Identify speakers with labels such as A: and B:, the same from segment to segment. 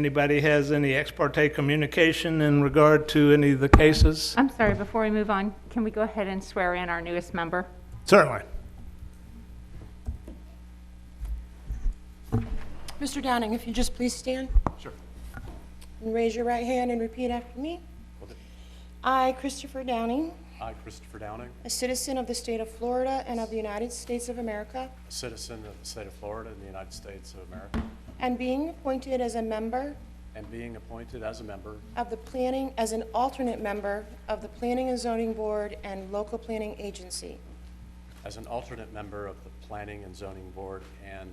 A: Anybody has any ex parte communication in regard to any of the cases?
B: I'm sorry, before we move on, can we go ahead and swear in our newest member?
A: Certainly.
C: Mr. Downing, if you just please stand.
A: Sure.
C: And raise your right hand and repeat after me. I, Christopher Downing,
D: I, Christopher Downing,
C: a citizen of the state of Florida and of the United States of America,
D: a citizen of the state of Florida in the United States of America,
C: and being appointed as a member
D: and being appointed as a member
C: of the planning, as an alternate member of the Planning and Zoning Board and Local Planning Agency,
D: as an alternate member of the Planning and Zoning Board and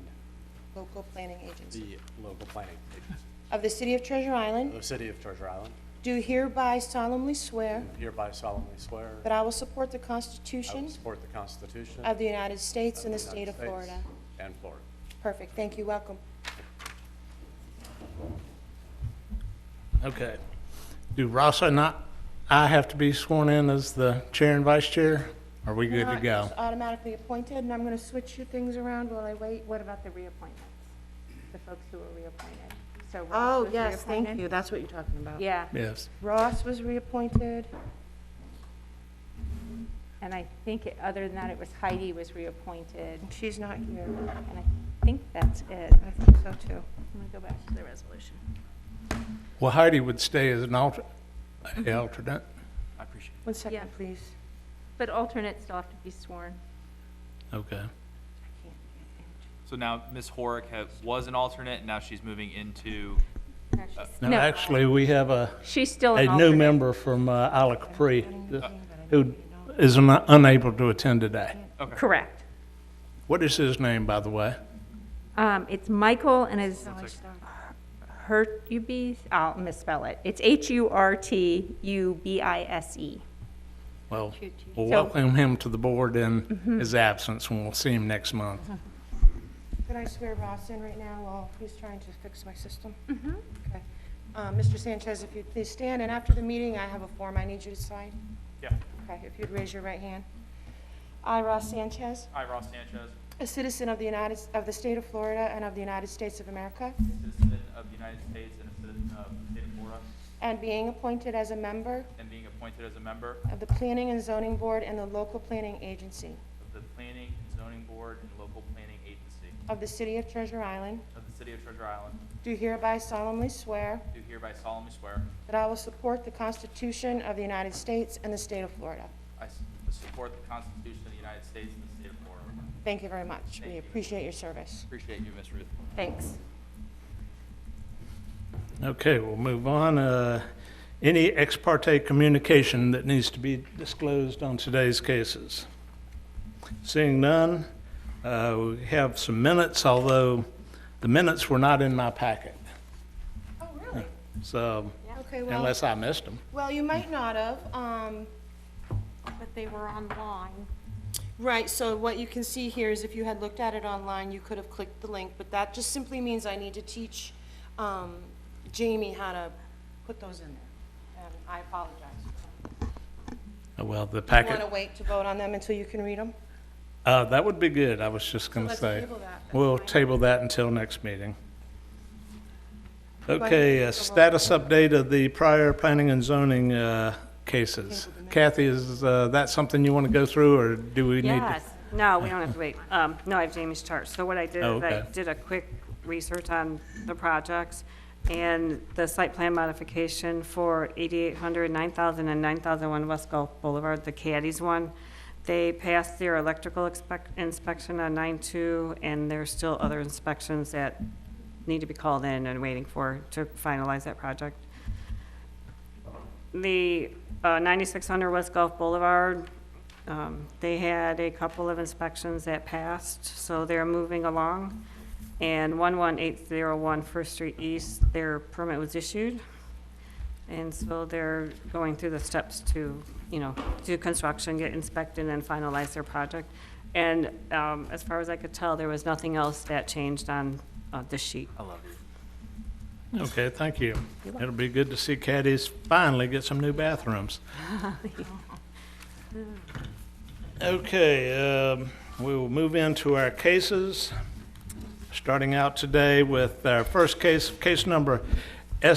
C: Local Planning Agency,
D: the local planning agency
C: of the city of Treasure
D: of
C: Island,
D: the city of Treasure Island.
C: do hereby solemnly swear
D: Hereby solemnly swear
C: that I will support the
D: I will
C: Constitution
D: support the Constitution
C: of the United States
D: of
C: and the state
D: United
C: of
D: States
C: Florida.
D: And Florida.
C: Perfect, thank you, welcome.
A: Okay. Do Ross and I, I have to be sworn in as the chair and vice chair? Are we good to
C: Not
A: go?
C: just Automatically appointed, and I'm going to switch your things around while I wait.
B: What about the reappointments? The folks who were reappointed? So Ross
C: Oh,
B: was
C: yes, thank
B: reappointed?
C: you, that's what you're talking about.
B: Yeah,
A: Yes.
C: Ross was reappointed,
B: and I think, it- other than that, it was Heidi was reappointed,
C: and she's not here.
B: and I think that's it.
C: I think so, too.
B: I'm gonna go back to the resolution.
A: Well, Heidi would stay as an alter, a alternate.
D: I appreciate it.
C: One
B: Yeah.
C: second, please.
B: But alternates still have to be sworn.
A: Okay.
E: So now Ms. Horick ha was an alternate, and now she's moving into,
B: No, she's-
A: Now, actually, we have a,
B: She's still an
A: a new
B: alternate.
A: member from uh, Isla Capri uh, who is un- unable to attend today.
E: okay.
B: Correct.
A: What is his name, by the way?
B: Um, it's Michael and his Hurt, you be, I'll misspell it. It's H-U-R-T-U-B-I-S-E.
A: Well, we'll welcome him to the board
C: Mm-hmm.
A: in his absence, and we'll see him next month.
C: Can I swear Ross in right now while he's trying to fix my system? Mm-hmm. Okay. Uh, Mr. Sanchez, if you'd please stand, and after the meeting, I have a form I need you to sign.
F: Yeah,
C: Okay, if you'd raise your right hand. I, Ross Sanchez,
F: I, Ross Sanchez,
C: a citizen of the United, of the state of Florida and of the United States of America,
F: a citizen of the United States and a citizen of the state of Florida,
C: and being appointed as a member
F: and being appointed as a member
C: of the Planning and Zoning Board and the local planning agency
F: of the Planning and Zoning Board and Local Planning Agency
C: of the City of Treasure Island,
F: of the city of Treasure Island,
C: do hereby solemnly swear
F: do hereby solemnly swear
C: that I will support the Constitution of the United States and the state of Florida.
F: I s- support the Constitution of the United States and the state of Florida.
C: Thank you very much. We
F: you.
C: appreciate your service.
F: Appreciate you, Ms. Ruth.
C: Thanks. Uh-huh.
A: Okay, we'll move on. Uh, Any ex parte communication that needs to be disclosed on today's cases? Seeing none, uh, we have some minutes, although the minutes were not in my packet,
C: Oh, really?
A: so
C: Okay, well,
A: unless I missed them.
C: well, you might not have. um,
B: But they were online.
C: Right, so what you can see here is if you had looked at it online, you could have clicked the link, but that just simply means I need to teach um, Jamie how to put those in there. And I apologize.
A: Oh, Well, the
C: You want
A: packet,
C: to wait to vote on them until you can read them?
A: uh, that would be good, I was just going to
C: let's
A: say.
C: table that, that's
A: We'll
C: fine.
A: table that until next meeting.
C: ahead
A: Okay, a
C: and take a vote.
A: status update of the prior planning and zoning uh, cases. Kathy, is uh, that something you want to go through, or do we need to?
G: Yes, no, we don't have to wait. Um, no, I have Jamie's chart. So what I did
A: Oh,
G: is I
A: okay.
G: did a quick research on the projects and the site plan modification for 8800, 9000, and 9001 West Gulf Boulevard, the Caddies one. They passed their electrical expec- inspection on 9/2, and there's still other inspections that need to be called in and waiting for to finalize that project. The uh, 9600 West Gulf Boulevard, um, they had a couple of inspections that passed, so they're moving along. And 11801 First Street East, their permit was issued. And so they're going through the steps to, you know, do construction, get inspected, and finalize their project. And um, as far as I could tell, there was nothing else that changed on uh, this sheet.
A: Okay, thank you. It'll be good to see Caddies finally get some new bathrooms. Okay, um, we will move into our cases. starting out today with our first case, case number